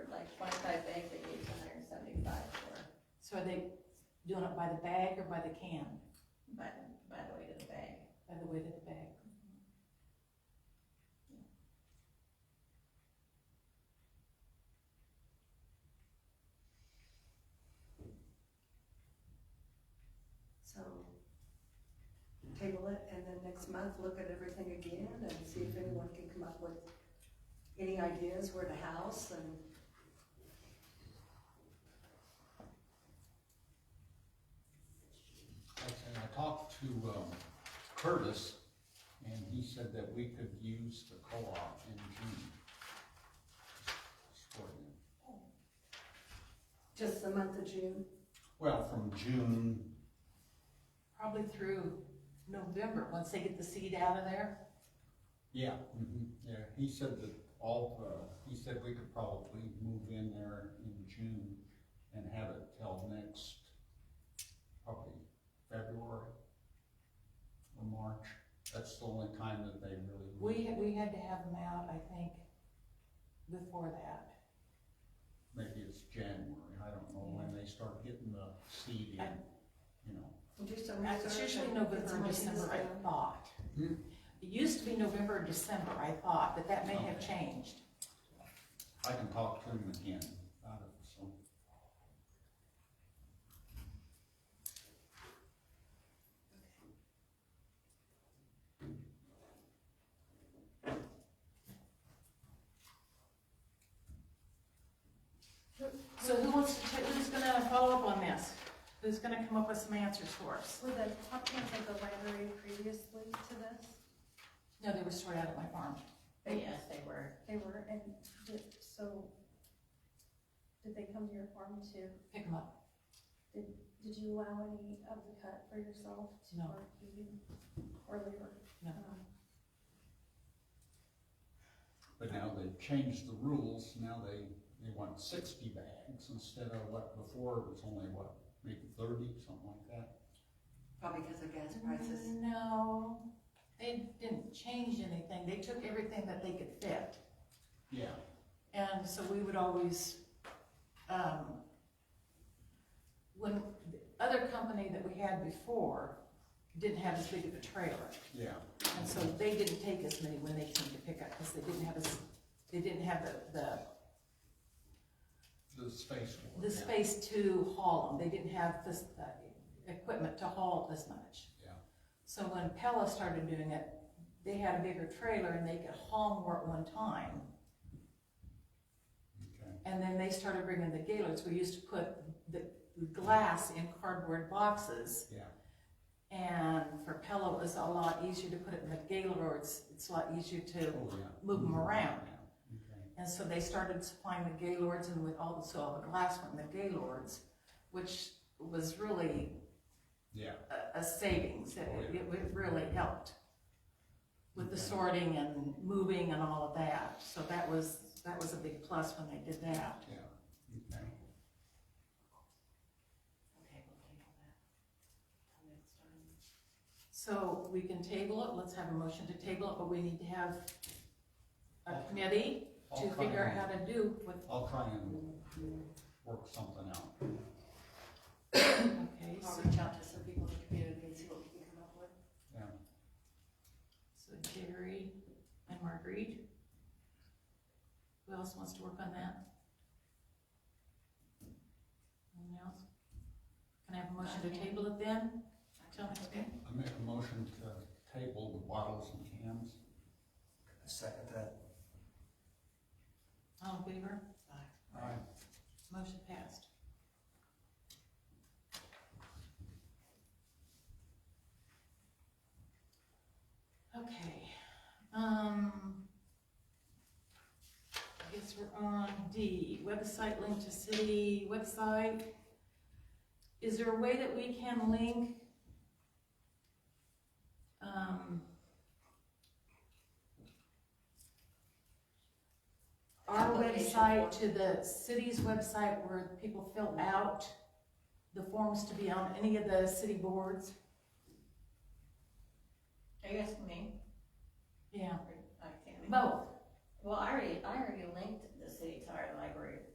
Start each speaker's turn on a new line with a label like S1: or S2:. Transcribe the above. S1: So are they doing it by the bag or by the can,
S2: by, the- by the way to the bag.
S1: by the weight of the bag?
S3: So table it and then next month, look at everything again and see if anyone can come up with any ideas where to house and.
S4: And I talked to um, Curtis, and he said that we could use the co-op in June. Just for them.
S3: Just the month of June,
S4: Well, from June,
S1: Probably through November, once they get the seed out of there.
S4: yeah, mhm, yeah, he said that all, uh, he said we could probably move in there in June and have it till next, probably February or March. That's the only time that they really.
S1: We, had- we had to have them out, I think, before that.
S4: maybe it's January, I don't know when they start getting the seed in, you know.
S3: We'll do some research.
S1: It's usually
S3: and
S1: November
S3: get some
S1: or December, I
S3: ideas.
S1: thought.
S4: Hmm.
S1: It used to be November or December, I thought, but that may have
S4: Okay.
S1: changed.
S4: I can talk to him again about it, so.
S1: So who wants to, ta- who's gonna follow up on this? Who's gonna come up with some answers for us?
S3: Were the copies of the library previously to this?
S1: No, they were sorted out at my farm.
S2: But yes, they were,
S3: They were, and did- so did they come to your farm too?
S1: Pick them up.
S3: Did you allow any of the cut for yourself to
S1: No.
S3: work even or labor?
S1: No.
S3: Um,
S4: But now they've changed the rules, now they, they want sixty bags instead of what before, it was only what, maybe thirty, something like that?
S2: probably because of
S3: Mm-hmm.
S2: gas prices.
S1: No, they didn't change anything. They took everything that they could fit.
S4: Yeah,
S1: And so we would always, um, when, the other company that we had before didn't have as big of a trailer.
S4: yeah,
S1: And so they didn't take as many when they came to pick up, because they didn't have as, they didn't have the, the
S4: the space for it.
S1: the
S4: yeah,
S1: space to haul them, they didn't have this, uh, equipment to haul as much.
S4: Yeah.
S1: So when Pella started doing it, they had a bigger trailer and they could haul more at one time.
S4: Okay,
S1: And then they started bringing the gailers, we used to put the glass in cardboard boxes.
S4: yeah,
S1: And for Pella, it was a lot easier to put it in the gailer, or it's, it's a lot easier to,
S4: oh, yeah.
S1: Move 'em around.
S4: Yeah, Okay,
S1: and so they started supplying the gaylords and with also all the glass from the gaylords, which was really
S4: yeah,
S1: a, a savings, it,
S4: Oh, yeah.
S1: it would really helped with the sorting and moving and all of that, so that was, that was a big plus when they did that.
S4: yeah, okay.
S2: Okay, we'll table that. till next time.
S1: So we can table it, let's have a motion to table it, but we need to have a committee
S4: I'll
S1: to
S4: try
S1: figure out
S4: and-
S1: how to do with,
S4: I'll try and work something out.
S1: okay,
S2: I'll
S1: so,
S2: reach out to some people in the community and see what we can come up with.
S1: so Jerry and Marguerite. Who else wants to work on that? Anyone else? Can I have a motion to table it then? Till next week?
S4: I make a motion to table the bottles and cans.
S5: Second that.
S1: All in favor?
S4: Aye.
S1: Motion passed. Okay, um, I guess we're on D, website link to city website. Is there a way that we can link, um, our
S2: Application
S1: website to the city's website where people fill out the forms to be on any of the city boards?
S2: Are you asking me?
S1: Yeah,
S2: I can't.
S1: both.
S2: Well, I already, I already linked the city to our library